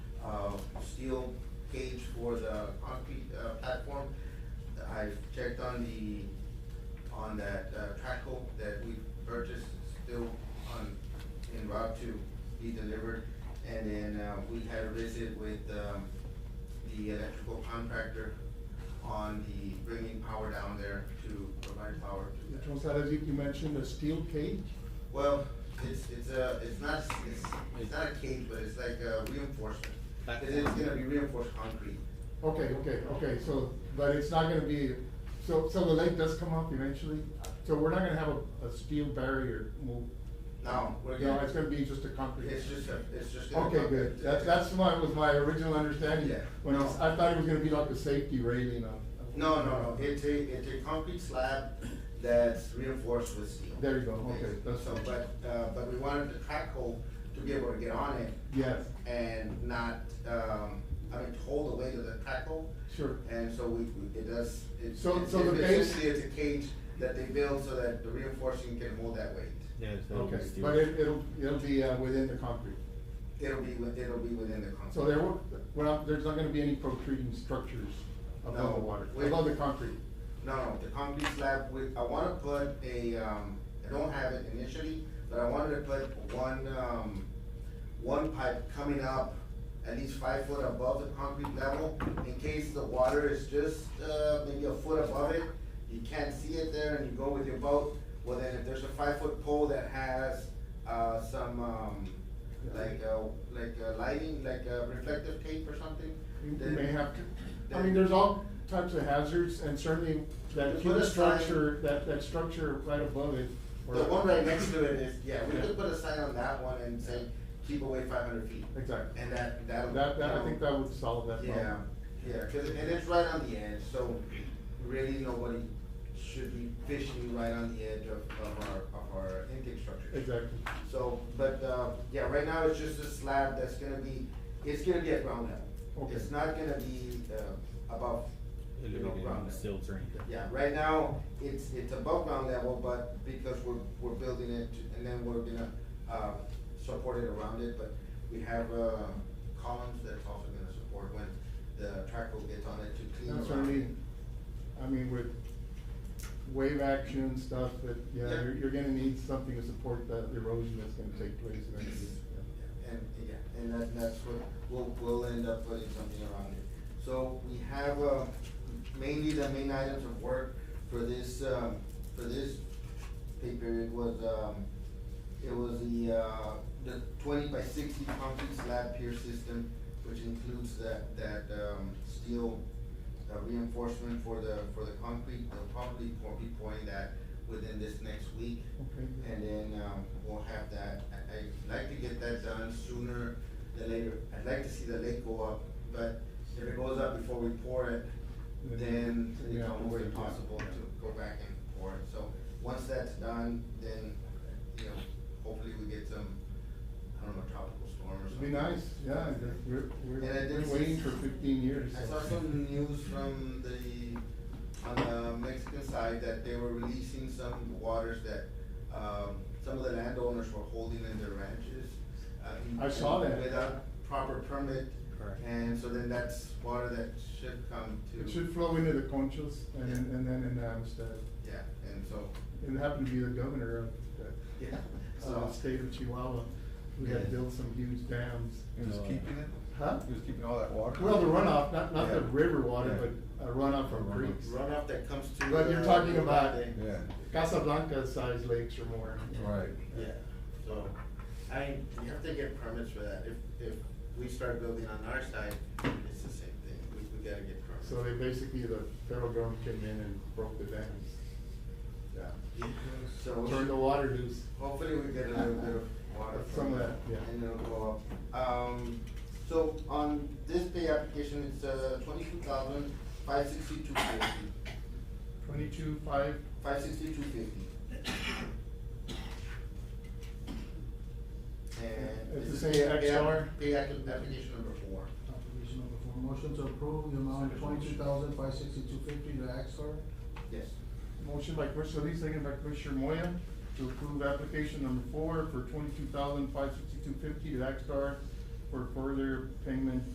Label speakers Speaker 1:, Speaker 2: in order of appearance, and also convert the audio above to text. Speaker 1: uh, steel cage for the concrete, uh, platform. I've checked on the, on that, uh, track hole that we purchased, still on, en route to be delivered. And then, uh, we had a visit with, um, the electrical contractor on the bringing power down there to provide power to that.
Speaker 2: Which was that, as you you mentioned, a steel cage?
Speaker 1: Well, it's, it's a, it's not, it's, it's not a cage, but it's like a reinforcement. Cause it's gonna be reinforced concrete.
Speaker 2: Okay, okay, okay, so, but it's not gonna be, so, so the lake does come up eventually? So we're not gonna have a, a steel barrier move?
Speaker 1: No, we're
Speaker 2: No,
Speaker 1: gonna,
Speaker 2: it's gonna be just a concrete?
Speaker 1: it's just a, it's just gonna.
Speaker 2: Okay,
Speaker 1: go-
Speaker 2: good, that's, that's my, was my original understanding.
Speaker 1: Yeah.
Speaker 2: When I s- I thought it was gonna be like a safety railing on.
Speaker 1: No, no, no, it's a, it's a concrete slab that's reinforced with steel.
Speaker 2: There you go, okay, that's-
Speaker 1: So, but, uh, but we wanted the track hole to be able to get on it
Speaker 2: Yes,
Speaker 1: and not, um, I mean, hold the weight of the track hole.
Speaker 2: sure.
Speaker 1: And so we, we- it does, it's,
Speaker 2: So-
Speaker 1: it's
Speaker 2: so the
Speaker 1: it's
Speaker 2: base-
Speaker 1: essentially it's a cage that they build so that the reinforcing can hold that weight.
Speaker 3: Yeah, it's not
Speaker 2: Okay,
Speaker 3: just you.
Speaker 2: but it, it'll, it'll be, uh, within the concrete.
Speaker 1: It'll be, with- it'll be within the concrete.
Speaker 2: So there will, we're not, there's not gonna be any protruding structures above the
Speaker 1: No.
Speaker 2: water,
Speaker 1: Wait.
Speaker 2: above the concrete?
Speaker 1: No, no, the concrete slab, we, I wanna put a, um, I don't have it initially, but I wanted to put one, um, one pipe coming up at least five foot above the concrete level, in case the water is just, uh, maybe a foot above it, you can't see it there and you go with your boat, well then if there's a five foot pole that has, uh, some, um, like, uh, like uh, lighting, like uh, reflective tape or something,
Speaker 2: You
Speaker 1: then.
Speaker 2: may have to, I mean, there's all types of hazards, and certainly that
Speaker 1: Just put
Speaker 2: huge
Speaker 1: a sign.
Speaker 2: structure, that, that structure right above it. or-
Speaker 1: The one right next to it is, yeah, we
Speaker 2: Yeah.
Speaker 1: could put a sign on that one and say, keep away five hundred feet.
Speaker 2: Exactly.
Speaker 1: And that, that'll.
Speaker 2: That, that, I
Speaker 1: that'll-
Speaker 2: think that would solve that
Speaker 1: Yeah,
Speaker 2: problem.
Speaker 1: yeah, cause, and it's right on the edge, so really nobody should be fishing right on the edge of, of our, of our intake structures.
Speaker 2: Exactly.
Speaker 1: So, but, uh, yeah, right now it's just a slab that's gonna be, it's gonna be at ground level.
Speaker 2: Okay.
Speaker 1: It's not gonna be, uh, above, you know,
Speaker 3: Elevated
Speaker 1: ground
Speaker 3: and
Speaker 1: level.
Speaker 3: still drained.
Speaker 1: Yeah, right now, it's, it's above ground level, but because we're, we're building it, and then we're gonna, uh, support it around it, but we have, uh, columns that's also gonna support when the track will get on it to clean
Speaker 2: That's what I
Speaker 1: around it.
Speaker 2: mean, I mean, with wave action stuff, that, yeah,
Speaker 1: Yeah.
Speaker 2: you're, you're gonna need something to support that erosion that's gonna take place eventually. yeah.
Speaker 1: Yeah, And, yeah, and that, that's what, we'll, we'll end up putting something around it. So we have, uh, mainly the main items of work for this, um, for this pay period was, um, it was the, uh, the twenty by sixty concrete slab pier system, which includes that, that, um, steel uh, reinforcement for the, for the concrete. They'll probably be pouring that within this next week.
Speaker 2: Okay. good.
Speaker 1: And then, um, we'll have that, I, I'd like to get that done sooner than later, I'd like to see the lake go up, but if it goes up before we pour it, then
Speaker 2: we
Speaker 1: it's
Speaker 2: have to
Speaker 1: almost
Speaker 2: wait, yeah.
Speaker 1: impossible to go back and pour it, so, once that's done, then, you know, hopefully we get some, I don't know, tropical storm or
Speaker 2: It'd
Speaker 1: something.
Speaker 2: be nice, yeah, that we're, we're,
Speaker 1: And I did
Speaker 2: we're
Speaker 1: see-
Speaker 2: waiting for fifteen years.
Speaker 1: I
Speaker 2: so.
Speaker 1: saw some news from the, on the Mexican side that they were releasing some waters that, um, some of the landowners were holding in their ranches. uh, in-
Speaker 2: I saw that.
Speaker 1: Without proper permit.
Speaker 3: Correct.
Speaker 1: And so then that's water that should come to.
Speaker 2: It should flow into the conchos and,
Speaker 1: Yeah.
Speaker 2: and then in Amistad.
Speaker 1: Yeah, and so,
Speaker 2: It happened to be the governor of the,
Speaker 1: yeah,
Speaker 2: uh,
Speaker 1: so,
Speaker 2: state of Chihuahua, who had
Speaker 1: Yeah.
Speaker 2: built some huge dams.
Speaker 4: He was
Speaker 3: No, uh,
Speaker 4: keeping it?
Speaker 2: Huh?
Speaker 4: He was keeping all that water?
Speaker 2: Well, the runoff, not, not the
Speaker 4: Yeah.
Speaker 2: river water,
Speaker 4: Yeah.
Speaker 2: but a runoff from
Speaker 3: Runoff.
Speaker 2: creeks.
Speaker 1: runoff that comes to.
Speaker 2: But you're
Speaker 1: uh,
Speaker 2: talking about-
Speaker 1: Uvalde.
Speaker 4: Yeah,
Speaker 2: Casablanca-sized lakes or more.
Speaker 4: right.
Speaker 1: Yeah, so, I, we have to get permits for that, if, if we start building on our side, it's the same thing, we, we gotta get permits.
Speaker 2: So they basically, the federal government came in and broke the dams. Yeah.
Speaker 1: Yeah, So.
Speaker 2: Turned the water loose.
Speaker 1: Hopefully we get a little bit of water
Speaker 2: Some
Speaker 1: from
Speaker 2: of
Speaker 1: that,
Speaker 2: that, yeah.
Speaker 1: and it'll go up. Um, so on this pay application, it's, uh, twenty-two thousand, five sixty-two fifty,
Speaker 2: Twenty-two, five,
Speaker 1: five sixty-two fifty. And.
Speaker 2: It's the
Speaker 1: this
Speaker 2: same
Speaker 1: is pay app-
Speaker 2: XR?
Speaker 1: Pay app- application number four.
Speaker 5: Application number four, motion to approve the amount of twenty-two thousand five sixty-two fifty to Axar.
Speaker 1: Yes.
Speaker 2: Motion by Commissioner Solis, second by Commissioner Moya, to approve application number four for twenty-two thousand five sixty-two fifty to Axtar for further payment